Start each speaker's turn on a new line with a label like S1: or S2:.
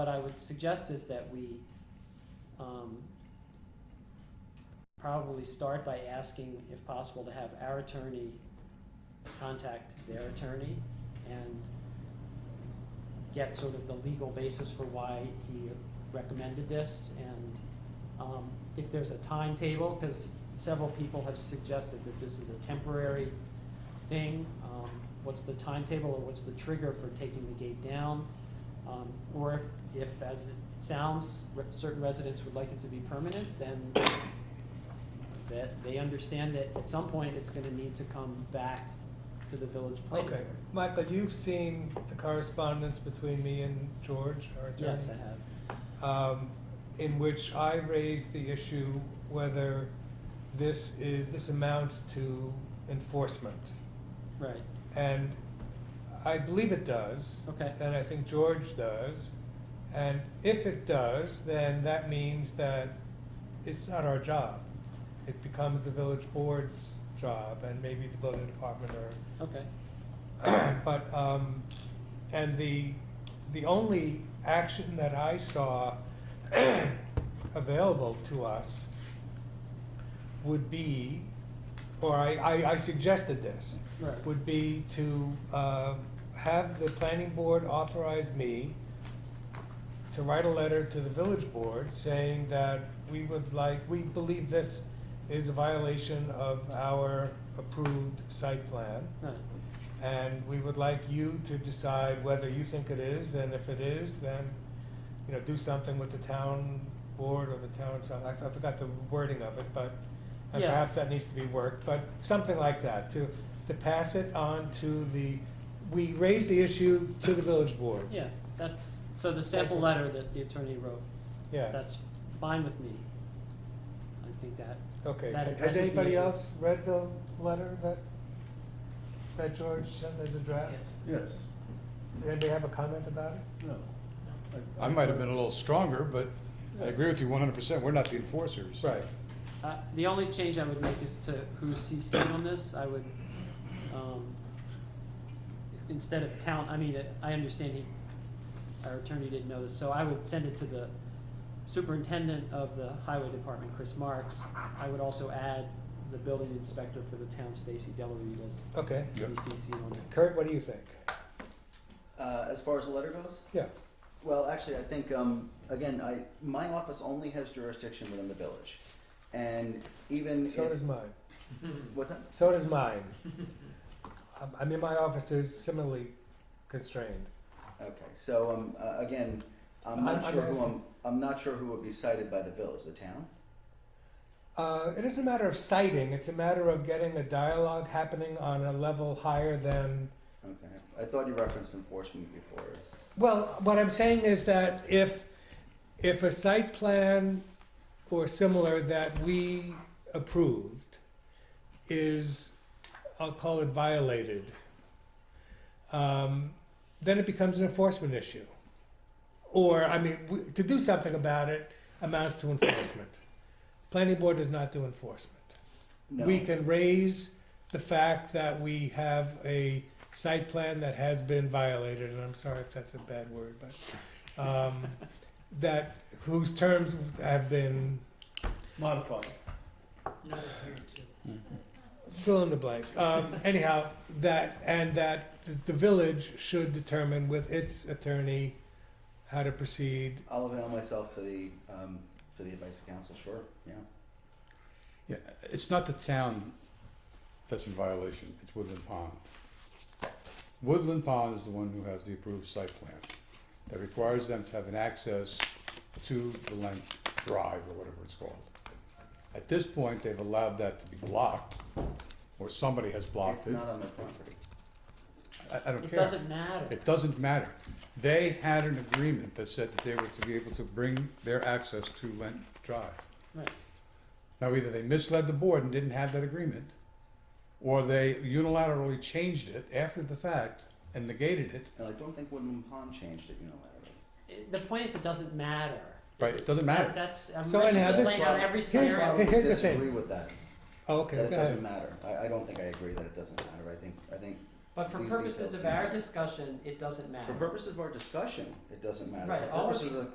S1: What I would suggest is that we um, probably start by asking, if possible, to have our attorney contact their attorney and get sort of the legal basis for why he recommended this. And um, if there's a timetable, because several people have suggested that this is a temporary thing, um, what's the timetable or what's the trigger for taking the gate down? Um, Or if, if, as it sounds, re- certain residents would like it to be permanent, then that they understand that at some point, it's gonna need to come back to the village planning.
S2: Okay,
S1: board.
S2: Michael, you've seen the correspondence between me and George, our attorney?
S1: Yes, I have.
S2: um, in which I raised the issue whether this is, this amounts to enforcement.
S1: Right,
S2: And I believe it does.
S1: Okay.
S2: And I think George does. And if it does, then that means that it's not our job. It becomes the village board's job and maybe the building department or
S1: okay.
S2: but, um, and the, the only action that I saw available to us would be, or I, I, I suggested this,
S1: Right.
S2: would be to, uh, have the planning board authorize me to write a letter to the village board saying that we would like, we believe this is a violation of our approved site plan.
S1: Right,
S2: And we would like you to decide whether you think it is, and if it is, then, you know, do something with the town board or the town, some- I I forgot the wording of it, but, and
S1: Yeah.
S2: perhaps that needs to be worked, but something like that, to, to pass it on to the, we raise the issue to the village board.
S1: yeah, that's, so the sample
S2: what-
S1: letter that the attorney wrote,
S2: Yes,
S1: that's fine with me. I think that,
S2: okay.
S1: that
S2: Has
S1: addresses the
S2: anybody
S1: issue.
S2: else read the letter that, that George sent as a draft?
S3: Yes,
S2: Did anybody have a comment about it?
S3: no.
S4: I might have been a little stronger, but I agree with you one hundred percent, we're not the enforcers.
S2: Right.
S1: uh, the only change I would make is to who's CC on this, I would, um, instead of town, I mean, I understand he, our attorney didn't know this, so I would send it to the superintendent of the highway department, Chris Marks. I would also add the building inspector for the town, Stacy Delarue, as
S2: Okay.
S4: Yeah.
S1: VCC on it.
S2: Kurt, what do you think?
S5: Uh, as far as the letter goes,
S2: Yeah.
S5: well, actually, I think um, again, I my office only has jurisdiction within the village, and even
S2: So
S5: if-
S2: does mine.
S5: what's that?
S2: So does mine. Um, I mean, my office is similarly constrained.
S5: Okay, so um, uh, again, I'm
S2: I'm-
S5: not
S2: I'm
S5: sure who
S2: asking-
S5: I'm, I'm not sure who would be cited by the village, the town.
S2: Uh, it isn't a matter of citing, it's a matter of getting a dialogue happening on a level higher than.
S5: Okay, I thought you referenced enforcement before.
S2: Well, what I'm saying is that if, if a site plan or similar that we approved is, I'll call it violated, um, then it becomes an enforcement issue. Or, I mean, we- to do something about it amounts to enforcement. Planning board does not do enforcement.
S5: No.
S2: We can raise the fact that we have a site plan that has been violated, and I'm sorry if that's a bad word, but, um, that, whose terms have been,
S3: Modified.
S2: fill in the blank. Um, anyhow, that, and that th- the village should determine with its attorney how to proceed.
S5: I'll avail myself to the um, to the advice of council. Sure. Yeah.
S4: Yeah, it's not the town that's in violation, it's Woodland Pond. Woodland Pond is the one who has the approved site plan that requires them to have an access to the land drive or whatever it's called. At this point, they've allowed that to be blocked, or somebody has blocked
S5: it's
S4: it.
S5: not on my property.
S4: I, I don't
S1: It
S4: care.
S1: doesn't matter.
S4: It doesn't matter. They had an agreement that said that they were to be able to bring their access to Lent Drive.
S1: Right.
S4: Now, either they misled the board and didn't have that agreement, or they unilaterally changed it after the fact and negated it.
S5: And I don't think Woodland Pond changed it unilaterally.
S1: It- The point is, it doesn't matter.
S4: Right, it doesn't
S1: That-
S4: matter.
S1: That's, I'm
S2: So
S1: just
S2: anyhow, this-
S1: laying out every
S2: Here's-
S1: scenario.
S5: I would
S2: here's the thing.
S5: disagree with that.
S2: Oh, Okay,
S5: That it
S2: go
S5: doesn't
S2: ahead.
S5: matter. I, I don't think I agree that it doesn't matter. I think I think
S1: But for
S5: these
S1: purposes
S5: details
S1: of
S5: can-
S1: our discussion, it doesn't matter.
S5: For purposes of our discussion, it doesn't matter.
S1: Uh-huh. Right,
S5: For
S1: all of
S5: purposes
S1: the-
S5: of